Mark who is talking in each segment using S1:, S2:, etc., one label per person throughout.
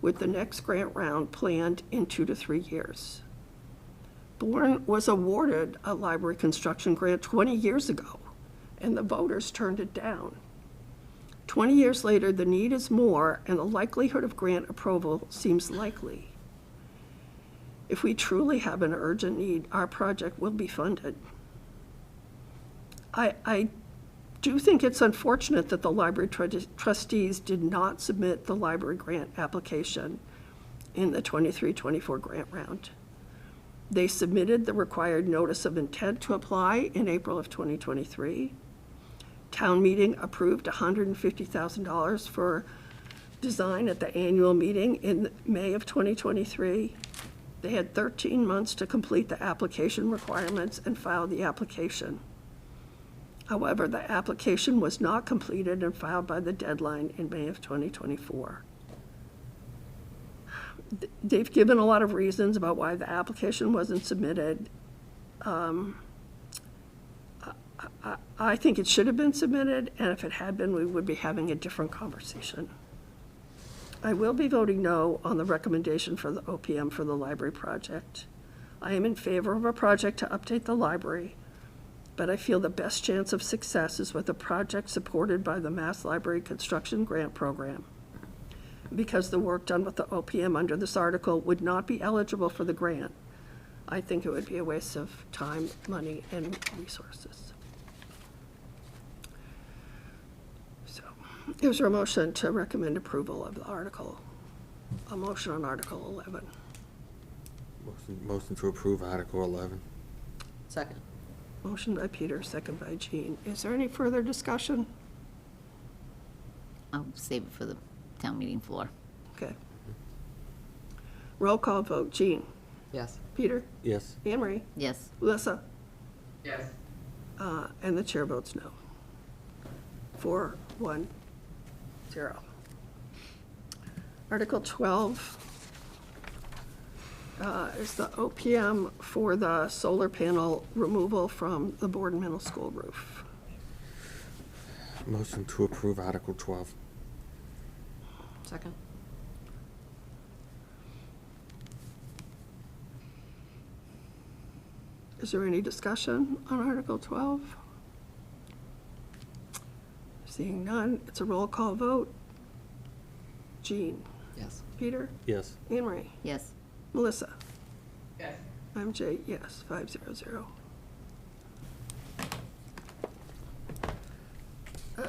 S1: with the next grant round planned in two to three years. Bourne was awarded a library construction grant 20 years ago, and the voters turned it down. 20 years later, the need is more, and the likelihood of grant approval seems likely. If we truly have an urgent need, our project will be funded. I, I do think it's unfortunate that the library trud- trustees did not submit the library grant application in the 23-24 grant round. They submitted the required notice of intent to apply in April of twenty twenty-three. Town meeting approved hundred and fifty thousand dollars for design at the annual meeting in May of twenty twenty-three. They had thirteen months to complete the application requirements and file the application. However, the application was not completed and filed by the deadline in May of 2024. Th- They've given a lot of reasons about why the application wasn't submitted. Um, I I- I think it should have been submitted, and if it had been, we would be having a different conversation. I will be voting no on the recommendation for the OPM for the library project. I am in favor of a project to update the library but I feel the best chance of success is with a project supported by the Mass Library Construction Grant Program. Because the work done with the OPM under this article would not be eligible for the grant, I think it would be a waste of time, money, and resources. So, is there a motion to recommend approval of the article? A motion on Article 11.
S2: Motion- Motion to approve Article 11.
S3: Second.
S1: Motion by Peter, second by Jean. Is there any further discussion?
S3: I'll save it for the town meeting floor.
S1: Okay. Roll call vote, Jean,
S4: Yes.
S1: Peter,
S2: Yes.
S1: Anne Marie,
S3: Yes,
S1: Melissa,
S4: Yes.
S1: uh, and the chair votes no. Four, one, zero. Article 12 uh, is the OPM for the solar panel removal from the Board Middle School roof.
S2: Motion to approve Article 12.
S4: Second?
S1: Is there any discussion on Article 12? Seeing none, it's a roll call vote. Jean,
S4: Yes.
S1: Peter,
S2: Yes.
S1: Anne Marie,
S3: yes,
S1: Melissa,
S4: Yes.
S1: I'm Jay, yes, 500. Uh,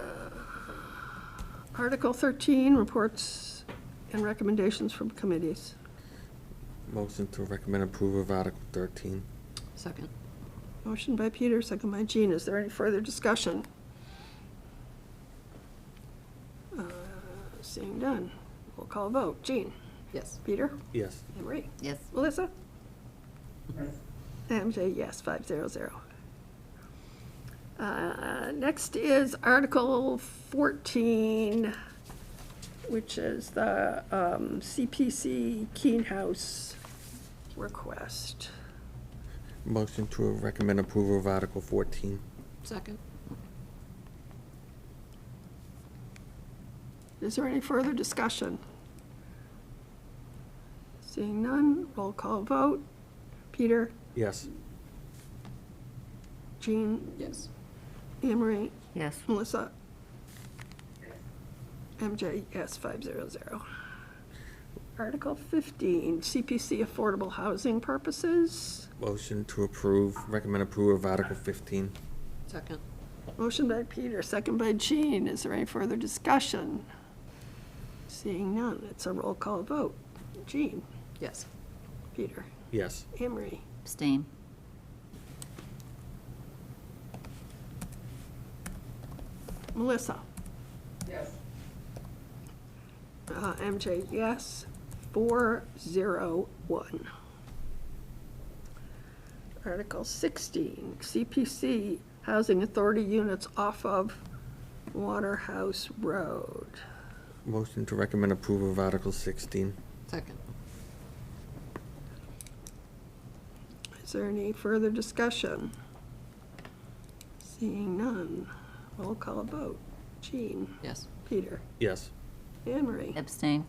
S1: Article 13, reports and recommendations from committees.
S2: Motion to recommend approval of Article 13.
S4: Second?
S1: Motion by Peter, second by Jean. Is there any further discussion? Uh, Seeing done. We'll call a vote. Jean?
S4: Yes.
S1: Peter?
S2: Yes.
S1: Anne Marie?
S3: yes,
S1: Melissa? MJ, yes, five zero zero. Uh, Next is Article fourteen, which is the um, CPC Keen House request.
S2: Motion to recommend approval of Article 14.
S4: Second?
S1: Is there any further discussion? Seeing none, roll call vote. Peter,
S2: Yes.
S1: Jean,
S4: Yes.
S1: Anne Marie,
S3: yes,
S1: Melissa? MJ, yes, 500. Article 15, CPC Affordable Housing Purposes.
S2: Motion to approve, recommend approval of Article 15.
S4: Second?
S1: Motion by Peter, second by Jean. Is there any further discussion? Seeing none, it's a roll call vote. Jean,
S4: Yes.
S1: Peter,
S2: Yes.
S1: Anne Marie?
S3: abstain,
S1: Melissa?
S4: Yes.
S1: Uh, MJ, yes. Four, zero, one. Article sixteen, CPC Housing Authority units off of Waterhouse Road.
S2: Motion to recommend approval of Article 16.
S4: Second?
S1: Is there any further discussion? Seeing none, we'll call a vote. Jean,
S4: Yes.
S1: Peter,
S2: Yes.
S1: Anne Marie,
S3: abstain,